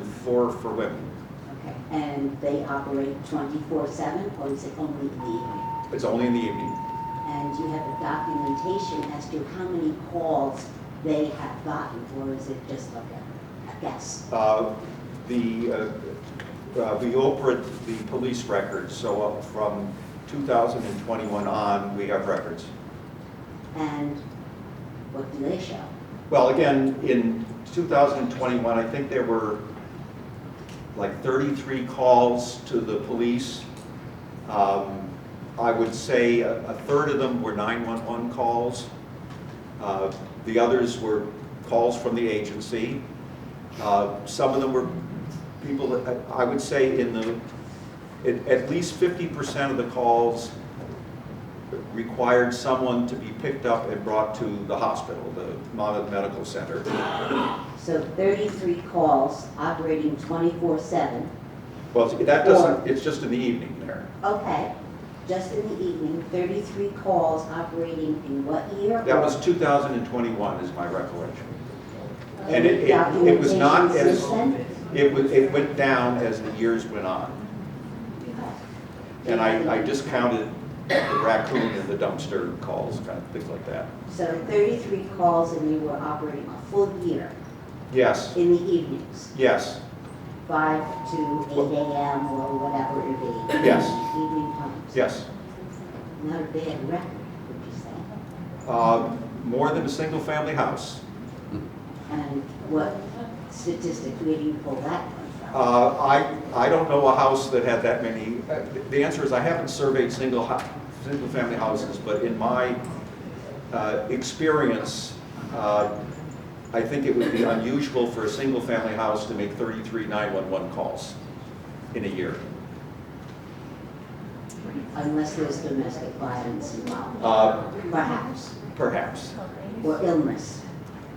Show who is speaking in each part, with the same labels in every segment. Speaker 1: four for women.
Speaker 2: Okay, and they operate twenty-four seven, or is it only in the evening?
Speaker 1: It's only in the evening.
Speaker 2: And do you have a documentation as to how many calls they have gotten, or is it just like a a guess?
Speaker 1: Uh, The, uh, uh, we operate the police records, so up from 2021 on, we have records.
Speaker 2: And what do they show?
Speaker 1: Well, again, in 2021, I think there were like 33 calls to the police. Um, I would say a a third of them were 911 calls. Uh, The others were calls from the agency. Uh, Some of them were people that, I would say in the, at- at least 50% of the calls required someone to be picked up and brought to the hospital, the Monmouth Medical Center.
Speaker 2: So thirty-three calls operating twenty-four seven,
Speaker 1: Well, that doesn't, it's just in the evening there.
Speaker 2: okay, just in the evening, thirty-three calls operating in what year?
Speaker 1: That was 2021 is my recollection. and it- it- it was not
Speaker 2: Documentation
Speaker 1: as-
Speaker 2: system?
Speaker 1: It was, it went down as the years went on. And I, I discounted the raccoon and the dumpster calls, kind of things like that.
Speaker 2: So thirty-three calls and they were operating a full year
Speaker 1: Yes,
Speaker 2: in the evenings,
Speaker 1: yes,
Speaker 2: five to eight AM or whatever it be.
Speaker 1: Yes.
Speaker 2: Evening times.
Speaker 1: yes.
Speaker 2: Not a bad record, would you say?
Speaker 1: Uh, More than a single-family house.
Speaker 2: And what statistic, where do you pull that one from?
Speaker 1: Uh, I, I don't know a house that had that many, uh, the answer is I haven't surveyed single, hou- single-family houses, but in my uh, experience, uh, I think it would be unusual for a single-family house to make 33 911 calls in a year.
Speaker 2: Unless there's domestic violence involved,
Speaker 1: Uh,
Speaker 2: perhaps,
Speaker 1: Perhaps,
Speaker 2: or illness.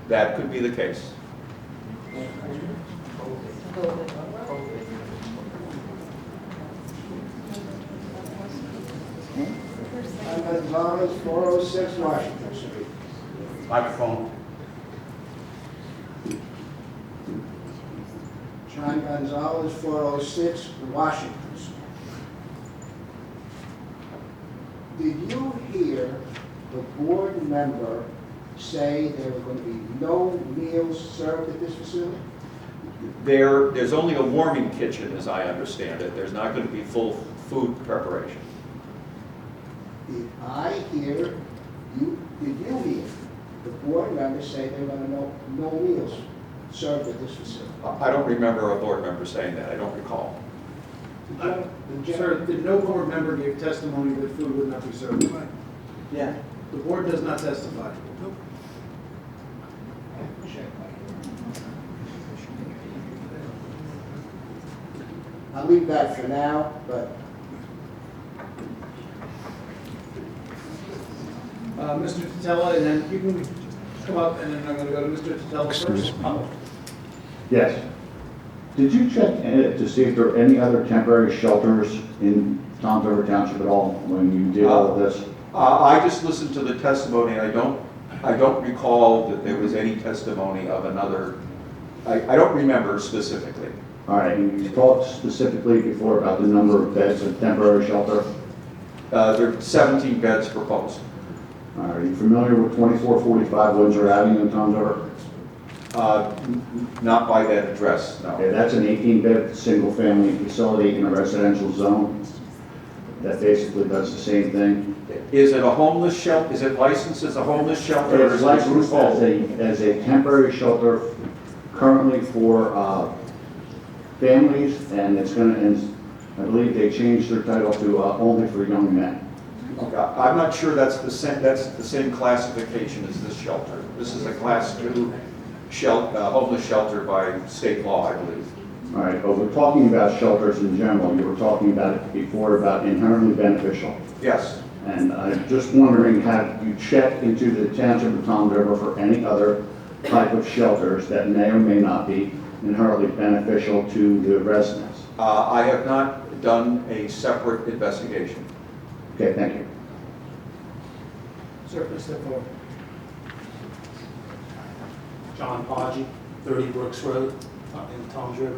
Speaker 1: that could be the case.
Speaker 3: I'm at Thomas, 406 Washington Street.
Speaker 4: Microphone.
Speaker 3: John Gonzalez, 406 Washington Street. Did you hear the board member say there were going to be no meals served at this facility?
Speaker 1: There, there's only a warming kitchen, as I understand it, there's not going to be full food preparation.
Speaker 3: Did I hear, you, did you hear the board member say there were going to no, no meals served at this facility?
Speaker 1: I I don't remember a board member saying that, I don't recall.
Speaker 3: The gen- the gen-
Speaker 5: Uh, Sir, that no board member gave testimony that food would not be served. Yeah. The board does not testify.
Speaker 3: I'll leave that for now, but
Speaker 5: Uh, Mr. Tatella, and then you can come up, and then I'm going to go to Mr. Tatella first.
Speaker 6: Excuse me.
Speaker 5: Oh,
Speaker 6: Yes. Did you check uh, to see if there are any other temporary shelters in Tom's River Township at all when you did all of this?
Speaker 1: Uh, I just listened to the testimony, and I don't, I don't recall that there was any testimony of another, I, I don't remember specifically.
Speaker 6: All right, and you talked specifically before about the number of beds in temporary shelter.
Speaker 1: Uh, There are 17 beds proposed.
Speaker 6: Are you familiar with 2445 Windsor Avenue in Tom's River?
Speaker 1: Uh, n- n- Not by that address,
Speaker 6: Okay,
Speaker 1: no.
Speaker 6: that's an 18-bed, single-family facility in a residential zone that basically does the same thing.
Speaker 1: Is it a homeless shelter, is it licensed as a homeless shelter? or
Speaker 6: It's
Speaker 1: is it
Speaker 6: licensed as
Speaker 1: loophole?
Speaker 6: a, as a temporary shelter currently for uh, families, and it's gonna, and I believe they changed their title to uh, only for young men.
Speaker 1: Okay, I'm not sure that's the same, that's the same classification as this shelter. This is a class two shelter, homeless shelter by state law, I believe.
Speaker 6: All right, but we're talking about shelters in general, you were talking about it before, about inherently beneficial.
Speaker 1: Yes,
Speaker 6: And I'm just wondering, have you checked into the township of Tom River for any other type of shelters that may or may not be inherently beneficial to the residents?
Speaker 1: Uh, I have not done a separate investigation.
Speaker 6: Okay, thank you.
Speaker 5: Sir, please step forward.
Speaker 4: John Podgy, 30 Brooks Road, uh, in Tom's River.